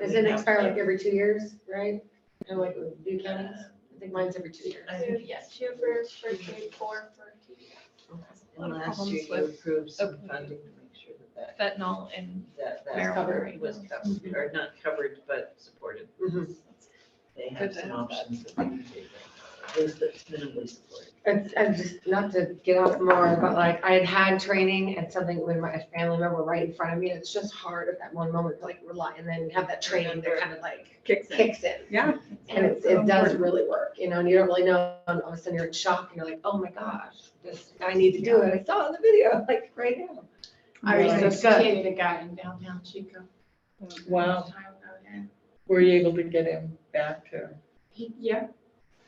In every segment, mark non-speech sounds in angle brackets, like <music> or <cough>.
Does it expire like every two years, right? And like with Duke counties, I think mine's every two years. I think yes. Two for first grade, four for TDS. lot And of last year you problems with approved some open funding to make sure that Fentanyl and that, that, marijuana that right covered, now. was covered, or not covered, but supported. Mhm. They Good have to some have that. options that they can take, at least that's minimally supported. It's, I'm just, not to get off more, but like, I had had training and something with my family member right in front of me, and it's just hard at that one moment to like rely, and then have that training that kind of like Kicks in. kicks in. Yeah. And it's, it does really work, you know, and you don't really know, and all of a sudden you're in shock, and you're like, oh my gosh, this, I need to do it, I saw it in the video, like, right now. I Right. resuscitated a guy in downtown Chico. Oh. Wow, Time ago, yeah. were you able to get him back to, He, yeah,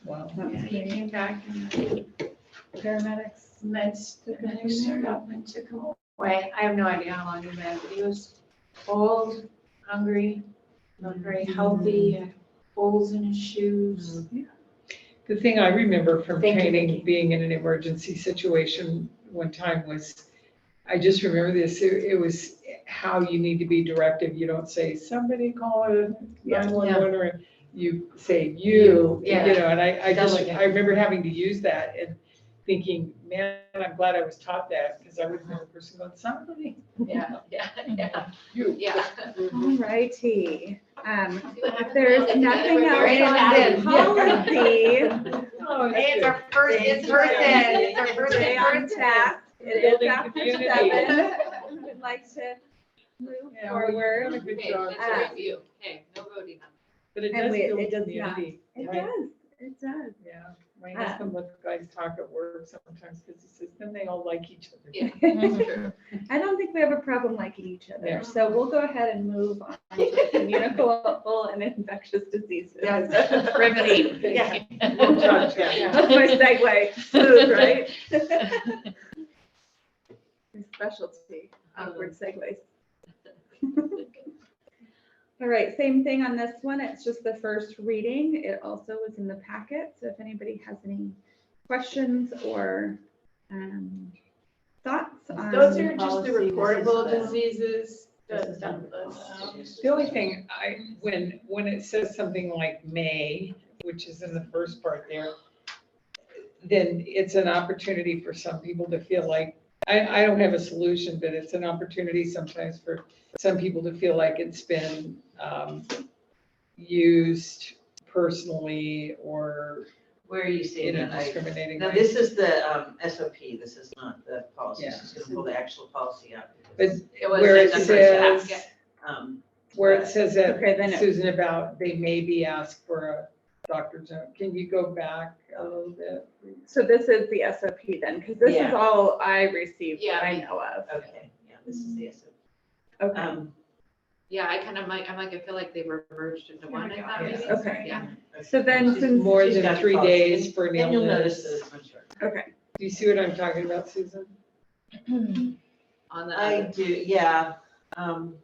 wow. yeah, he came back and the Paramedics. meds, the medics showed up and took him away. I have no idea how long he was, there, but he was old, hungry, not Mm-hmm. very healthy, had holes in his shoes. Mm-hmm. The thing I remember from Thank you, training, Vicki. being in an emergency situation one time was, I just remember this, it it was how you need to be directive. You don't say, somebody call a Yeah. 911 or you say you, you Yeah. know, and I, I just, Delegate. I remember having to use that and thinking, man, I'm glad I was taught that because I would remember a person going, somebody, Yeah, <laughs> yeah, yeah. you. Yeah. Alrighty, um, if there's nothing Right else on the in. policy, Oh, that's It's good. our first in Thank you. person, it's our first stay in on person. task. It is Building after community. seven, would like to move Yeah, well, you've forward. done a good job, Uh, review, okay, no voting. But it and does we- build it does not. community. It right? does, it does. Yeah, my husband lets guys talk at work sometimes because he says, then they all like each other. <laughs> Yeah. <laughs> I don't think we have a problem liking each Yeah. other, so we'll go ahead and move on to communicable and infectious diseases. <laughs> Yes. Riveting. Yeah. No judge, yeah. That's my segue, smooth, right? My Specialty, awkward segues. All right, same thing on this one, it's just the first reading, it also was in the packet, so if anybody has any questions or um, thoughts on. Those are just the policy, this is reportable the- diseases, This the is dump Oh, list. The only thing I, when, when it says something like may, which is in the first part there, then it's an opportunity for some people to feel like, I, I don't have a solution, but it's an opportunity sometimes for some people to feel like it's been, um, used personally or Where are you seeing in a it? I- discriminating Now, way. this is the um, SOP, this is not the policy, Yeah. she's gonna pull the actual policy out. But because, where it says, um, where it says that, Okay, then it- Susan, about they may be asked for a doctor's note, can you go back a little bit? So this is the SOP then, because this is Yeah. Um, all I received that I Yeah. know of. Okay, yeah, this is the SOP. Okay, Um, Yeah, I kind of like, I'm like, I feel like they were merged into one, I thought Oh Yeah. maybe. okay. Yeah. So then She's- since- More she's than got three policy. days for an And you'll notice illness. this, I'm sure. Okay, Do you see what I'm talking about, Susan? On the I other. do, yeah, um,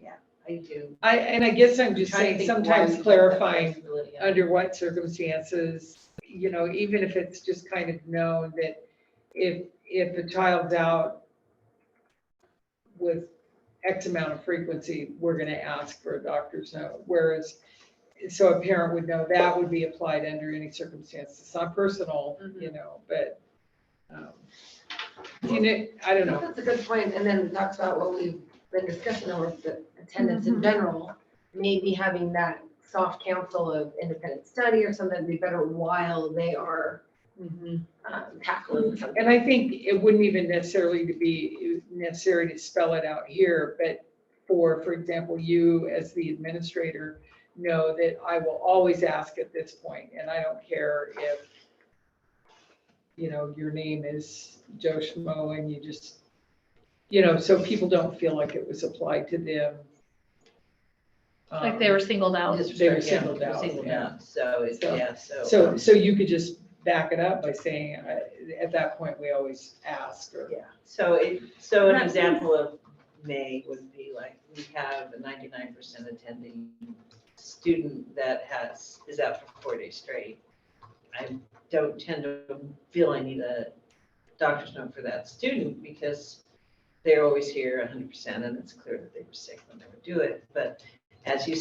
yeah, I do. I, and I guess I'm just Trying to saying, think why we sometimes have that clarifying flexibility on it. under what circumstances, you know, even if it's just kind of known that if, if a child's out with X amount of frequency, we're gonna ask for a doctor's note, whereas, so a parent would know that would be applied under any circumstances, it's not personal, you know, but, um, you know, I don't know, That's a good point, and then it talks about what we've been discussing over the attendance in general, maybe having that soft counsel of independent study or something would be better while they are Mm-hmm. um, tackling something. And I think it wouldn't even necessarily to be necessary to spell it out here, but for, for example, you as the administrator know that I will always ask at this point, and I don't care if, you know, your name is Joe Schmo and you just, you know, so people don't feel like it was applied to them. <laughs> Um, Like they were singled out. Just- they were yeah, singled out, Singled yeah. out, so, it's- So- yeah, so. So, so you could just back it up by saying, uh, at that point, we always ask or. Yeah, so it, so an That's- example of May would be like, we have a ninety-nine percent attending student that has, is out for four days straight. I don't tend to feel I need a doctor's note for that student because they're always here hundred percent and it's clear that they were sick when they would do it. But as you